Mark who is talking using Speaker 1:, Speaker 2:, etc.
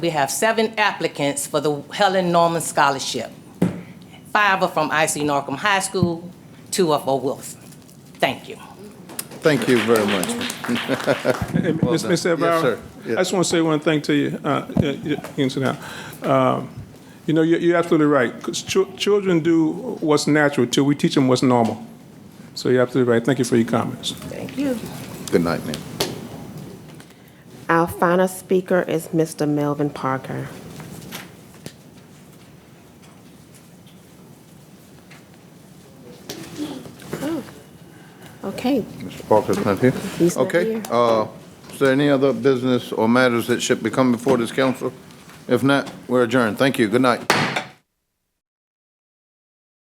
Speaker 1: We have seven applicants for the Helen Norman Scholarship. Five are from IC Norcom High School, two are for Wilson. Thank you.
Speaker 2: Thank you very much.
Speaker 3: Hey, Ms.
Speaker 2: done.
Speaker 3: Ms.
Speaker 2: Yes, sir.
Speaker 3: Alvaro, I
Speaker 2: Yeah.
Speaker 3: just want to say one thing to you, uh, you you can sit down. Um, You know, you're you're absolutely right, 'cause chil- children do what's natural till we teach them what's normal. So you're absolutely right. Thank you for your comments.
Speaker 1: Thank you.
Speaker 2: Good night, ma'am.
Speaker 4: Our final speaker is Mr. Melvin Parker. Oh, Okay,
Speaker 2: Mr. Parker's not here?
Speaker 4: He's not
Speaker 2: Okay,
Speaker 4: here.
Speaker 2: uh, is there any other business or matters that should be come before this council? If not, we're adjourned. Thank you. Good night.